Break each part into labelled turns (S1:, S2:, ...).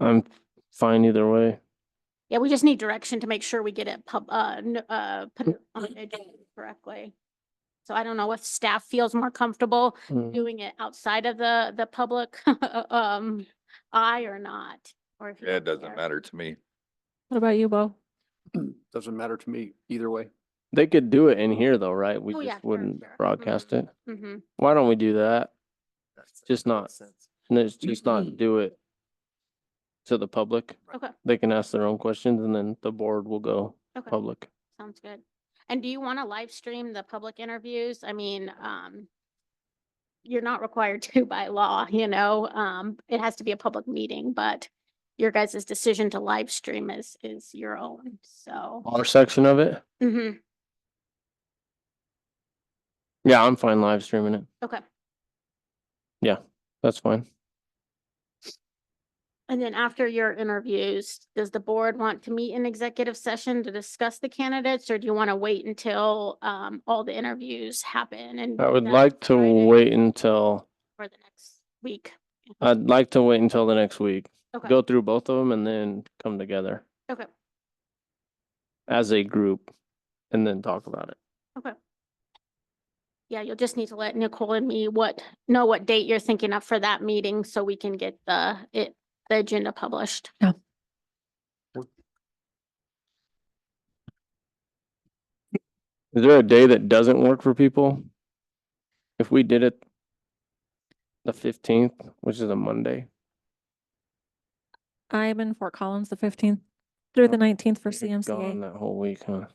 S1: I'm fine either way.
S2: Yeah, we just need direction to make sure we get it pub, uh, n- uh, put it on
S3: Mm-hmm.
S2: the agenda correctly. So I don't know if staff feels more comfortable
S1: Mm.
S2: doing it outside of the, the public, um, eye or not. or if you
S3: Yeah, it
S2: don't
S3: doesn't
S2: care.
S3: matter to me.
S4: What about you, Bo?
S5: Doesn't matter to me either way.
S1: They could do it in here though, right?
S2: Oh,
S1: We
S2: yeah,
S1: just
S2: sure,
S1: wouldn't
S2: sure.
S1: broadcast
S2: Mhm.
S1: it.
S2: Mhm.
S1: Why don't we do that? Just not, and it's just not do it to the public.
S2: Okay,
S1: They can ask their own questions and then the board will go
S2: okay,
S1: public.
S2: sounds good. And do you want to live stream the public interviews? I mean, um, you're not required to by law, you know, um, it has to be a public meeting, but your guys' decision to live stream is, is your own, so.
S1: Our section of it?
S2: mhm.
S1: Yeah, I'm fine live streaming it.
S2: Okay,
S1: That's fine.
S2: and then after your interviews, does the board want to meet in executive session to discuss the candidates? Or do you want to wait until um all the interviews happen and?
S1: I
S2: do
S1: would
S2: that
S1: like to
S2: Friday
S1: wait until,
S2: For the next week?
S1: I'd like to wait until the next week.
S2: Okay,
S1: Go through both of them and then come together
S2: okay,
S1: as a group and then talk about it.
S2: okay. Yeah, you'll just need to let Nicole and me what, know what date you're thinking of for that meeting so we can get the it, the agenda published.
S1: Is there a day that doesn't work for people? If we did it the fifteenth, which is a Monday,
S4: I'm in Fort Collins the fifteenth through the nineteenth for
S1: Oh, you're gone
S4: CMCA.
S1: that whole week, huh?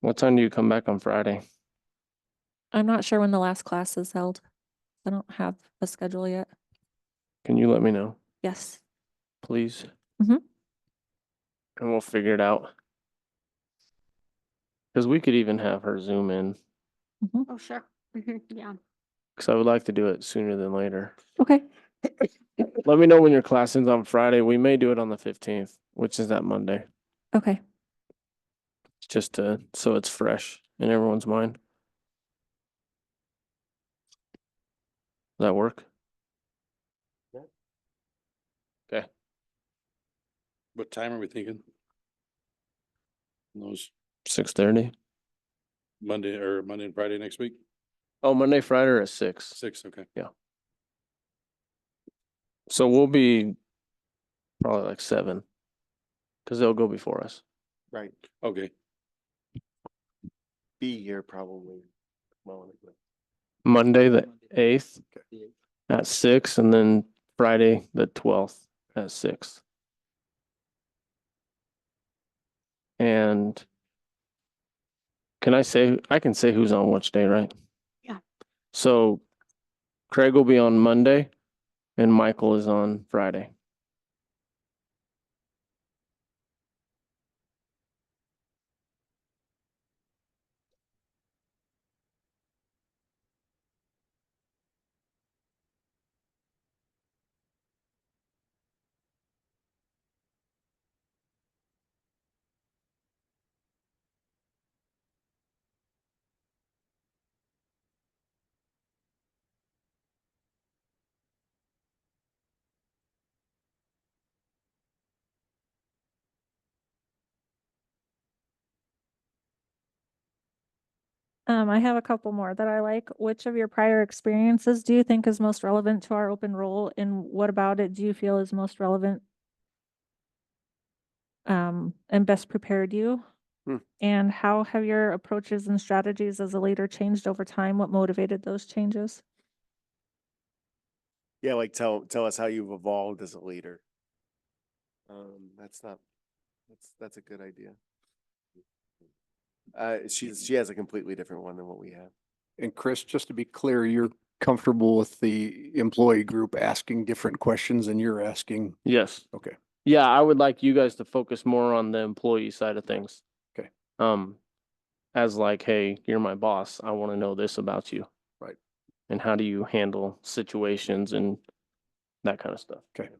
S1: What time do you come back on Friday?
S4: I'm not sure when the last class is held. I don't have a schedule yet.
S1: Can you let me know,
S4: Yes.
S1: please?
S4: Mhm.
S1: And we'll figure it out. Cause we could even have her zoom in,
S2: Oh, sure. Mhm, Yeah,
S1: cause I would like to do it sooner than later.
S4: Okay.
S1: Let me know when your class ends on Friday. We may do it on the fifteenth, which is that Monday.
S4: Okay.
S1: just to so it's fresh in everyone's mind. Does that work?
S5: What time are we thinking? Those
S1: Six thirty?
S5: Monday or Monday and Friday next week?
S1: Oh, Monday, Friday at six.
S5: Six, okay.
S1: So we'll be probably like seven. Cause they'll go before us.
S6: Right,
S5: Okay,
S6: be here probably. Well,
S1: Monday, the eighth
S6: okay.
S1: at six and then Friday, the twelfth at six. And can I say, I can say who's on which day, right?
S2: Yeah.
S1: So Craig will be on Monday and Michael is on Friday.
S4: Um, I have a couple more that I like. Which of your prior experiences do you think is most relevant to our open role and what about it do you feel is most relevant? Um, and best prepared you?
S5: Hmm.
S4: And how have your approaches and strategies as a leader changed over time? What motivated those changes?
S6: Yeah, like tell, tell us how you've evolved as a leader. Um, that's not, that's, that's a good idea. Uh, she's, she has a completely different one than what we have.
S7: And Chris, just to be clear, you're comfortable with the employee group asking different questions than you're asking?
S1: Yes.
S7: Okay.
S1: Yeah, I would like you guys to focus more on the employee side of things.
S7: Okay.
S1: Um, as like, hey, you're my boss. I want to know this about you.
S7: Right.
S1: And how do you handle situations and that kind of stuff?
S7: Okay.